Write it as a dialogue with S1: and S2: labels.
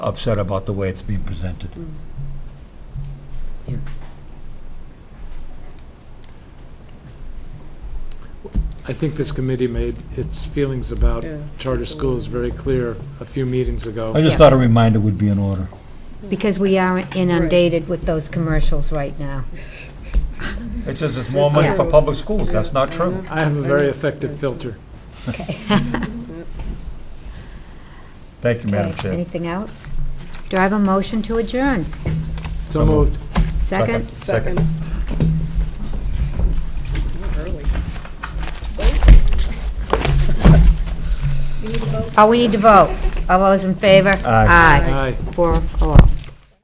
S1: upset about the way it's being presented.
S2: Mm,
S3: I think this committee made its feelings about
S2: Yeah.
S3: charter schools very clear a few meetings ago.
S1: I just
S2: Yeah.
S1: thought a reminder would be in order.
S4: Because we are inundated with those commercials right now.
S1: It says it's more money for public schools, that's not true.
S3: I have a very effective filter.
S1: Thank you, Madam
S4: Okay,
S1: Chair.
S4: Anything else? Do I have a motion to adjourn?
S3: So moved.
S4: Second?
S2: Second. Early.
S4: Oh, we need to vote. All those in favor?
S1: Aye.
S3: Aye.
S4: Four, oh.